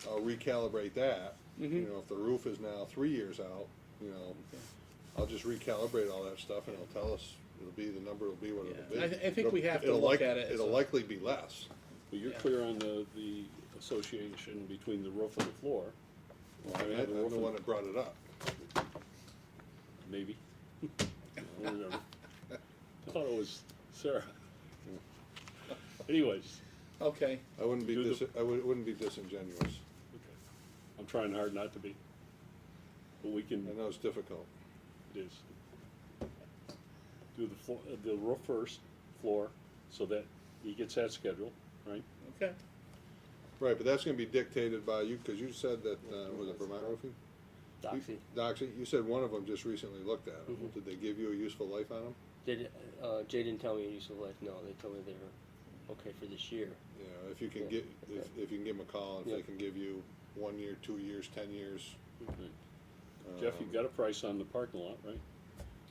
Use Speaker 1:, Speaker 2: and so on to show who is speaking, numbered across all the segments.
Speaker 1: recalibrate that.
Speaker 2: Mm-hmm.
Speaker 1: You know, if the roof is now three years out, you know, I'll just recalibrate all that stuff and it'll tell us, it'll be, the number will be what it'll be.
Speaker 2: Yeah. I th- I think we have to
Speaker 1: It'll
Speaker 2: look
Speaker 1: like-
Speaker 2: at it as
Speaker 1: It'll
Speaker 2: a-
Speaker 1: likely be less.
Speaker 3: Well, you're
Speaker 2: Yeah.
Speaker 3: clear on the, the association between the roof and the floor. Well,
Speaker 1: I mean, I'm the one that brought it up.
Speaker 3: Maybe. I don't remember. I thought it was Sarah. Anyways,
Speaker 2: Okay,
Speaker 1: I wouldn't be
Speaker 3: Do the-
Speaker 1: dis, I would- wouldn't be disingenuous.
Speaker 3: okay. I'm trying hard not to be. But we can,
Speaker 1: I know it's difficult.
Speaker 3: it is. Do the floor, the roof first, floor, so that he gets that schedule, right?
Speaker 2: okay.
Speaker 1: Right, but that's gonna be dictated by you, cause you said that, uh, was it Vermont Roofing?
Speaker 4: Doxy,
Speaker 1: Doxy, you said one of them just recently looked at them.
Speaker 2: Mm-hmm.
Speaker 1: Did they give you a useful life on them?
Speaker 4: did, uh, Jay didn't tell me useful life, no, they told me they were okay for this year.
Speaker 1: You know, if you can
Speaker 4: Yeah.
Speaker 1: get, if, if you can give them a call, and if they
Speaker 4: Yeah.
Speaker 1: can give you one year, two years, ten years. um,
Speaker 3: Okay. Jeff, you've got a price on the parking lot, right?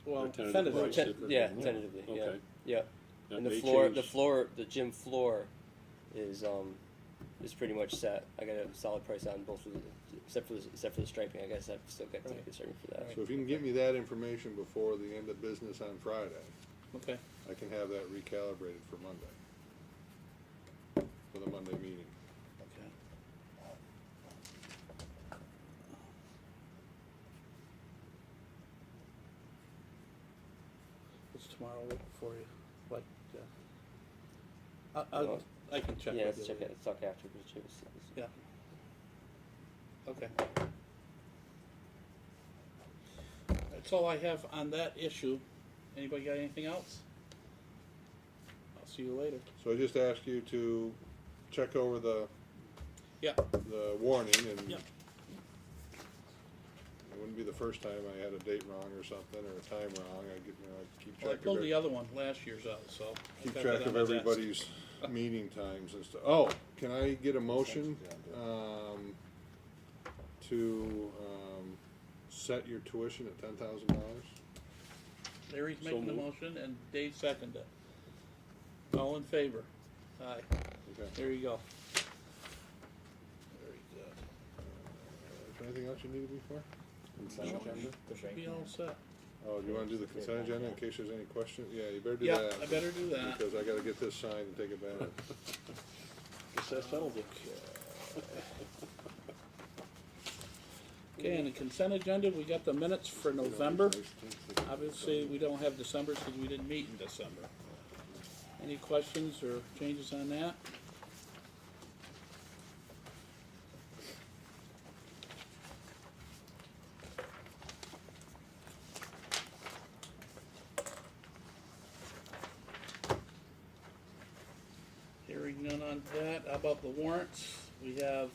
Speaker 2: Well,
Speaker 3: Lieutenant
Speaker 2: tentatively,
Speaker 3: Price.
Speaker 4: Ten- Yeah, tentatively, yeah,
Speaker 3: Okay.
Speaker 4: yeah.
Speaker 3: That
Speaker 4: And the
Speaker 3: may
Speaker 4: floor,
Speaker 3: change.
Speaker 4: the floor, the gym floor is, um, is pretty much set. I got a solid price on both of the, except for, the- except for the striping, I guess I've still got to
Speaker 2: Right.
Speaker 4: take a striping for that.
Speaker 1: So if you can get me that information before the end of business on Friday,
Speaker 2: okay,
Speaker 1: I can have that recalibrated for Monday. For the Monday meeting.
Speaker 2: okay. What's tomorrow week for you? Like, uh, I, I,
Speaker 4: Well,
Speaker 2: I can check with you.
Speaker 4: Yeah, let's check
Speaker 2: later.
Speaker 4: it, let's talk after, because Jay was, was-
Speaker 2: Yeah. Okay. That's all I have on that issue. Anybody got anything else? I'll see you later.
Speaker 1: So I just ask you to check over the,
Speaker 2: Yeah,
Speaker 1: the warning and.
Speaker 2: Yeah.
Speaker 1: It wouldn't be the first time I had a date wrong or something, or a time wrong, I get, you know, I keep
Speaker 2: well,
Speaker 1: track
Speaker 2: I
Speaker 1: of
Speaker 2: pulled the
Speaker 1: it.
Speaker 2: other one last year's out, so. I've
Speaker 1: Keep
Speaker 2: got
Speaker 1: track
Speaker 2: that on
Speaker 1: of
Speaker 2: my desk.
Speaker 1: everybody's meeting times and stuff. Oh, can I get a motion, um, to, um, set your tuition at ten thousand dollars?
Speaker 2: Larry's
Speaker 3: So
Speaker 2: making the
Speaker 3: moved.
Speaker 2: motion and Dave seconded it. All in favor? Aye,
Speaker 1: Okay,
Speaker 2: there you go. Very good.
Speaker 1: is there anything else you needed me for?
Speaker 2: Consent agenda? Should be all set.
Speaker 1: Oh, do you wanna do the consent agenda in case there's any questions? Yeah, you better do
Speaker 2: Yeah,
Speaker 1: that.
Speaker 2: I better do that.
Speaker 1: Because I gotta get this signed and take it back.
Speaker 3: Guess that settles it.
Speaker 2: Okay, and the consent agenda, we got the minutes for November. Obviously, we don't have December because we didn't meet in December. Any questions or changes on that? Hearing none on that. How about the warrants? We have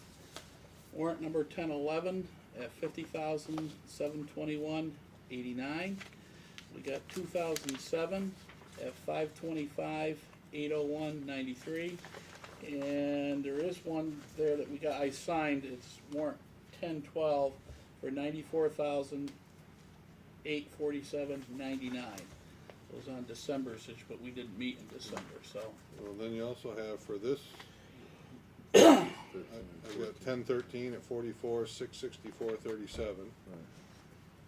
Speaker 2: warrant number ten eleven at fifty thousand, seven twenty-one, eighty-nine. We got two thousand seven at five twenty-five, eight oh one, ninety-three. And there is one there that we got, I signed, it's warrant ten twelve for ninety-four thousand, eight forty-seven, ninety-nine. It was on December's, but we didn't meet in December, so.
Speaker 1: Well, then you also have for this, I- I've got ten thirteen at forty-four, six sixty-four, thirty-seven.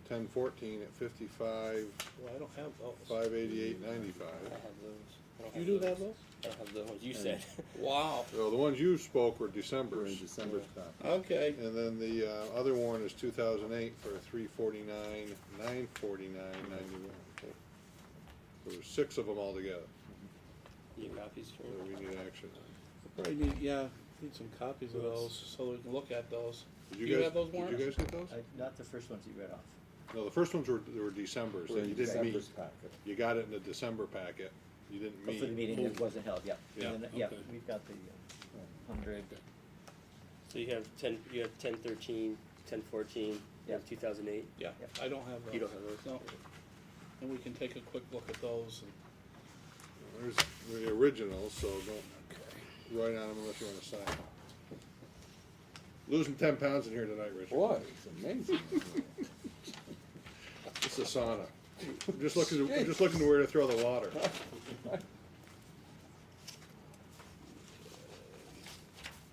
Speaker 1: Ten fourteen at fifty-five,
Speaker 2: Well, I don't have those.
Speaker 1: five eighty-eight,
Speaker 4: I
Speaker 1: ninety-five.
Speaker 4: have those. I don't
Speaker 2: You do
Speaker 4: those.
Speaker 2: have those?
Speaker 4: I don't have the ones you said.
Speaker 2: Wow.
Speaker 1: So the ones you spoke were December's.
Speaker 5: December top.
Speaker 2: Okay.
Speaker 1: And then the, uh, other warrant is two thousand eight for three forty-nine, nine forty-nine, ninety-one. So there's six of them altogether
Speaker 4: You copies for
Speaker 1: that
Speaker 4: me?
Speaker 1: we need action on.
Speaker 2: Probably need, yeah, need some copies of those so we can look at those.
Speaker 1: Did
Speaker 2: Do you
Speaker 1: guys-
Speaker 2: have those
Speaker 1: Did you
Speaker 2: warrants?
Speaker 1: guys get those?
Speaker 5: I, not the first ones you read off.
Speaker 1: No, the first ones were, they were December's, that you didn't meet. You got it in the December packet, you didn't
Speaker 5: Oh, for the
Speaker 1: meet.
Speaker 5: meeting that wasn't held, yeah.
Speaker 1: Yeah,
Speaker 5: And then, Yeah,
Speaker 3: okay.
Speaker 5: we've got the uh, hundred,
Speaker 4: So you have ten, you have ten thirteen, ten fourteen, you have
Speaker 5: Yeah.
Speaker 4: two thousand eight.
Speaker 2: Yeah, I don't have those.
Speaker 4: You don't have those?
Speaker 2: No. And we can take a quick look at those and.
Speaker 1: There's the originals, so don't write on them unless you wanna sign them. Losing ten pounds in here tonight, Richard.
Speaker 6: Boy, it's amazing.
Speaker 1: It's a sauna. I'm just looking, to- I'm just looking to where to throw the water.